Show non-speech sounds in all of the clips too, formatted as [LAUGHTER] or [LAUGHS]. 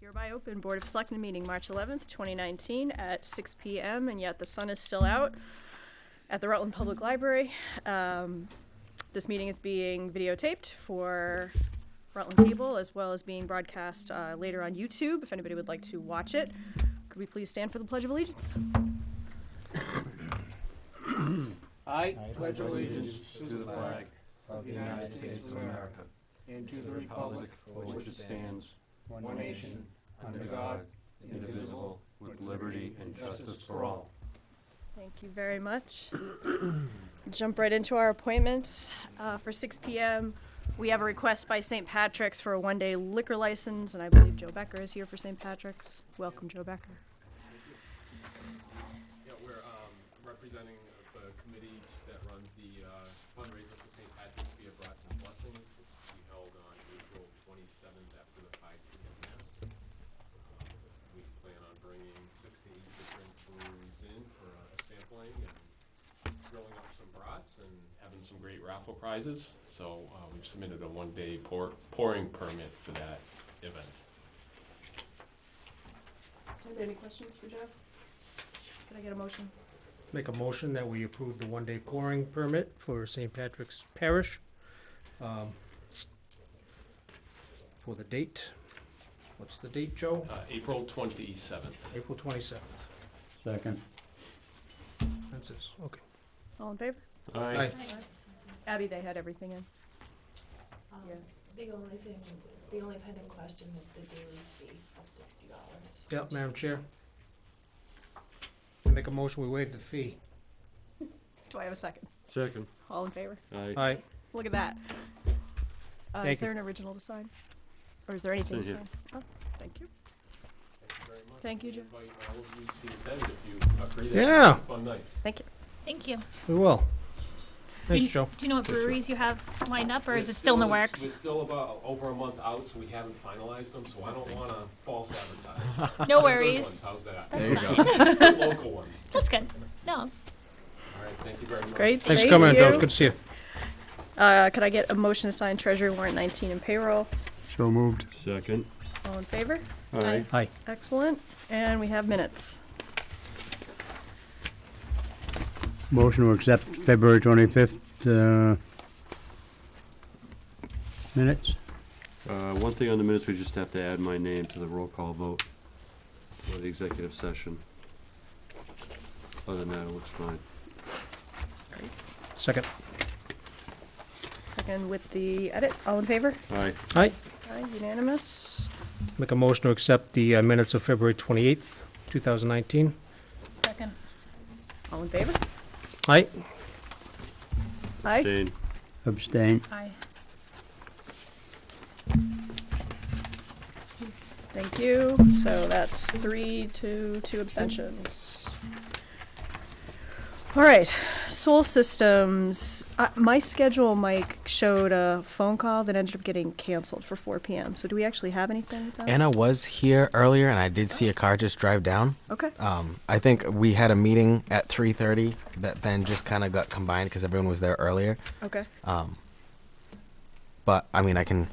Hereby open Board of Selectmen meeting, March 11th, 2019, at 6 PM, and yet the sun is still out at the Rutland Public Library. Um, This meeting is being videotaped for Rutland Cable, as well as being broadcast uh, later on YouTube, if anybody would like to watch it. Could we please stand for the Pledge of Allegiance? I pledge allegiance to the flag of the United States of America and to the republic for which it stands, one nation, under God, indivisible, with liberty and justice for all. Thank you very much. [CLEARS THROAT] Jump right into our appointments uh, for 6 PM. We have a request by St. Patrick's for a one-day liquor license, and I believe Joe Becker is here for St. Patrick's. Welcome, Joe Becker. Yeah, we're um, representing the committee that runs the uh, fundraiser for St. Patrick's Via Brats and Blessings. It's to be held on April 27th after the 5 p.m. Mass. Um, We plan on bringing six to eight different breweries in for a sampling and grilling up some brats and having some great raffle prizes. So uh, we've submitted a one-day pour- pouring permit for that event. Any questions for Joe? Can I get a motion? Make a motion that we approve the one-day pouring permit for St. Patrick's Parish. um, For the date, what's the date, Joe? Uh, April 27th. April twenty-seventh, Second. that's it, okay. All in favor? All Aye. right. Abby, they had everything in. Um, Yeah. The only thing, the only pending question is the daily fee of sixty dollars. Yep, Madam Chair. Make a motion, we waive the fee. Do I have a second? Second. All in favor? Aye, Look at that. Uh, Is Thank there you. an original to sign? Or is there anything to Thank sign? Oh, thank you. Thank you very much. Thank you, We Joe. Invite all of you to attend if you agree that Yeah. it's a fun night. Thank you. Thank you. we will. Thanks, Do you- Joe. Do you know what Thanks, Joe. breweries you have lined up, or is We're it still in the it's- works? We're still about over a month out, so we haven't finalized them, so I don't wanna false advertise. They're No good ones, [LAUGHS] worries. How's that? That's [LAUGHS] fine. Local ones. That's good. No, All right, thank you very much. Great. Thanks for thank coming, in, Joe, it's you. good to see you. Uh, could I get a motion to sign treasury warrant 19 and payroll? So moved. Second. All in favor? Aye. Aye, Excellent. And we have minutes. Motion to accept February 25th uh, minutes. Uh, One thing on the minutes, we just have to add my name to the roll call vote for the executive session. Other than that, it looks fine. second. Second with the edit. All in favor? Aye. Aye, Aye, unanimous. make a motion to accept the uh, minutes of February twenty-eighth, two thousand nineteen. second. All in favor? Aye, Aye. Dane. Abstain. Aye. Thank you. So that's three, two, two abstentions. All right, Soul Systems. Uh, my schedule, Mike, showed a phone call that ended up getting canceled for 4 p.m. So do we actually have anything with that? Anna was here earlier, and I did see a car just drive down. Okay. Um, I think we had a meeting at 3:30 that then just kind of got combined because everyone was there earlier. Okay. Um, but I mean, I can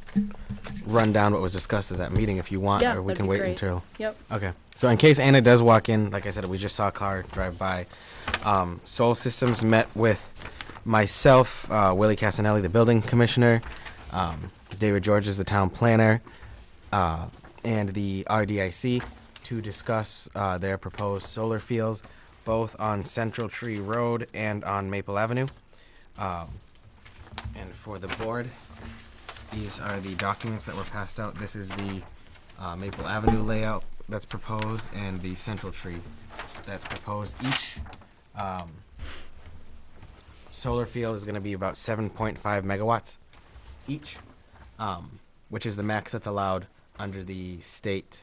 run down what was discussed at that meeting if you want, Yeah, or we that'd can be wait great. until. Yep. Okay. So in case Anna does walk in, like I said, we just saw a car drive by. Um, Soul Systems met with myself, uh, Willie Casanelli, the building commissioner, um, David George is the town planner, uh, and the RDIC to discuss uh, their proposed solar fields, both on Central Tree Road and on Maple Avenue. Um, and for the board, these are the documents that were passed out. This is the uh, Maple Avenue layout that's proposed and the Central Tree that's proposed. Each um, solar field is going to be about 7.5 megawatts each, um, which is the max that's allowed under the state